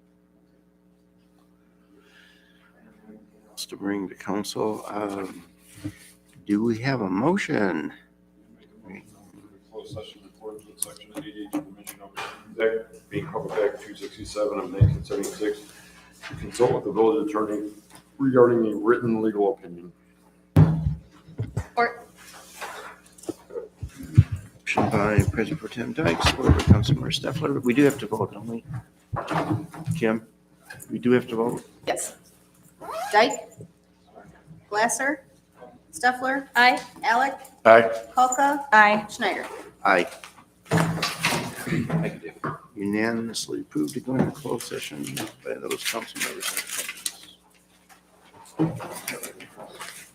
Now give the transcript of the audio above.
else to bring to council? Um, Do we have a motion? Make a motion to Closed session in accordance with section eighty-eight, permission over Act, being public act two sixty-seven of nineteen seventy-six, to consult with the village attorney regarding a written legal opinion. Or, Motion by President Pro Tem Dykes, supported by Councilmember Steffler. We do have to vote, don't we? Kim, we do have to vote? yes. Dyke? Glasser, Steffler, Aye. Alec, Aye. Polka, Aye. Schneider. Aye. Unanimously approved to go into closed session by those council members.